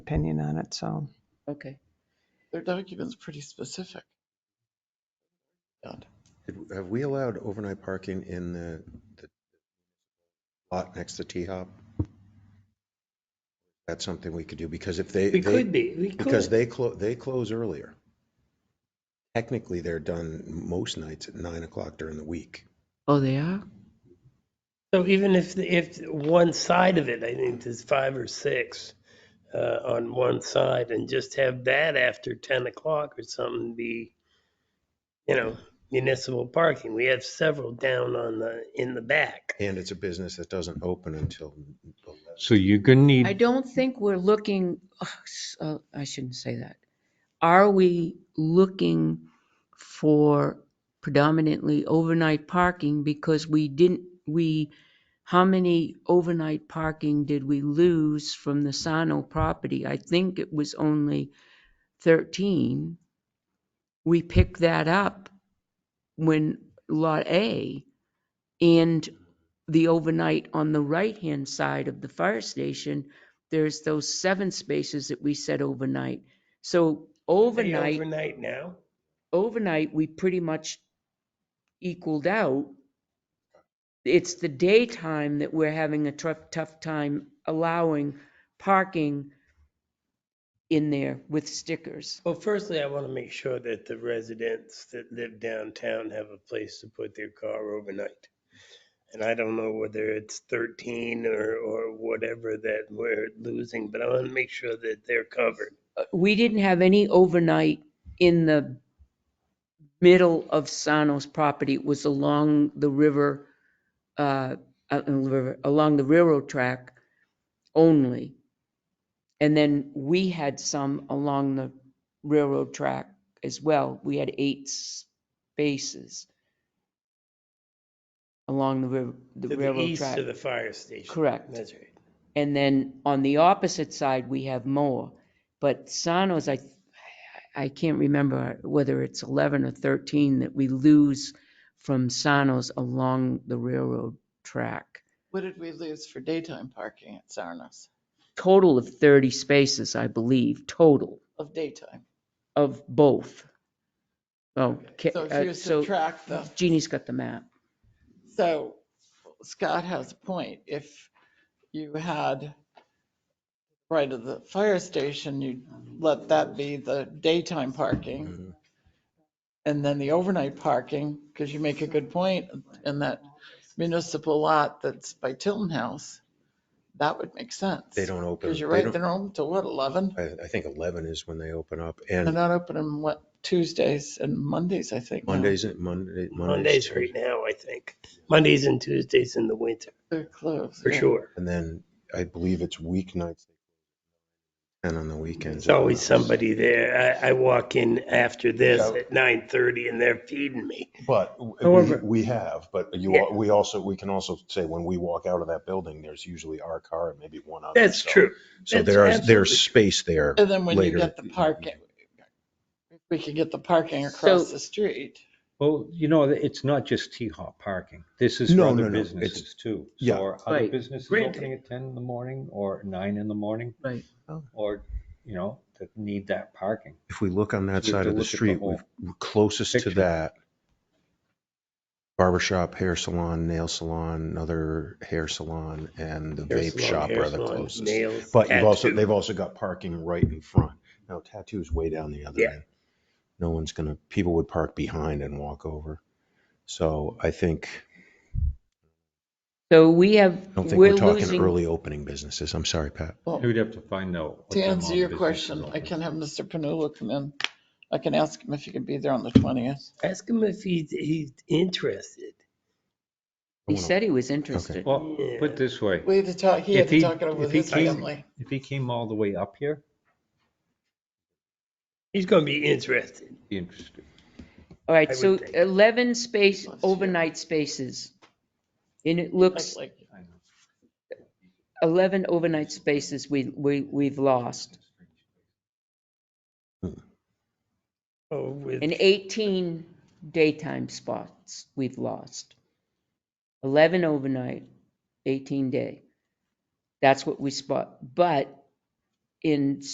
opinion on it, so. Okay. Their document's pretty specific. God. Have- Have we allowed overnight parking in the the lot next to T-Hop? That's something we could do because if they, We they, could be, we because could. they close, they close earlier. Technically, they're done most nights at nine o'clock during the week. Oh, they are? So even if, if one side of it, I think there's five or six uh, on one side and just have that after 10 o'clock or something be, you know, municipal parking. We have several down on the, in the back. And it's a business that doesn't open until 11. So you're gonna I need, don't think we're looking, ugh, s- uh, I shouldn't say that. Are we looking for predominantly overnight parking because we didn't, we, how many overnight parking did we lose from the Sano property? I think it was only 13. We picked that up when Lot A and the overnight on the right-hand side of the fire station, there's those seven spaces that we said overnight. So They overnight, Overnight now? overnight, we pretty much equaled out. It's the daytime that we're having a tough, tough time allowing parking in there with stickers. Well, firstly, I want to make sure that the residents that live downtown have a place to put their car overnight. And I don't know whether it's 13 or, or whatever that we're losing, but I want to make sure that they're covered. Uh, We didn't have any overnight in the middle of Sano's property. It was along the river, uh, uh, river- along the railroad track only. And then we had some along the railroad track as well. We had eight spaces along the river, the To the railroad east track. of the fire station. Correct. That's right. And then on the opposite side, we have more. But Sano's, I, I can't remember whether it's 11 or 13 that we lose from Sano's along the railroad track. What did we lose for daytime parking at Sarnos Total of 30 spaces, I believe, total of daytime? of both. Oh, ca- So if uh, you so subtract the, Jeannie's got the map. so Scott has a point. If you had right of the fire station, you let that be the daytime parking Mhm. and then the overnight parking, because you make a good point, in that municipal lot that's by Tilton House, that would make sense. They don't open. Because you're they right, don't- they're open till what, 11? I, I think 11 is when they open up They're and not open on what, Tuesdays and Mondays, I think. now. Mondays, Monday. Mondays right now, I think. Mondays and Tuesdays in the winter, They're closed. for yeah. sure. And then I believe it's weeknights and on the weekends. There's always somebody there. I, I walk in after this Yeah. at 9:30 and they're feeding me. But w- we- However- we have, but you, Yeah. al- we also, we can also say when we walk out of that building, there's usually our car and maybe one other. That's so- true. So That's there is, absolutely there's true. space there. And then when you later. get the parking, if we could get the parking So- across the street. well, you know, it's not just T-Hop parking. This is for No, no, other no, businesses too. yeah. So are other Right. businesses Granted. opening at ten in the morning or nine in the morning Right. Oh. or, you know, that need that parking? If we look on that You have side to of the look at the street, whole we've- we're closest to picture. that. Barber shop, hair salon, nail salon, another hair salon and the Hair vape salon, shop hair are the salon, closest. nails, But you've also, tattoo. they've also got parking right in front. Now tattoo's way down the other Yeah. end. No one's gonna, people would park behind and walk over. So I think, So we have, I don't think we're we're talking losing, early opening businesses. I'm sorry, Pat. Well, We'd have to find out. what to them answer all your businesses question, I open. can have Mr. Panula come in. I can ask him if he can be there on the 20th. Ask him if he's, he's interested. I he wanna- said he was interested. Well, put it this way, We had to talk, he had If to he- talk it over with if he his came- family. if he came all the way up here, He's going to be interested. be interested. All I right, would so think. 11 space, Plus, yeah. overnight spaces. And it Like- looks like- 11 overnight spaces we, we, we've lost Oh, with and 18 daytime spots we've lost. 11 overnight, 18 day. That's what we spot. But in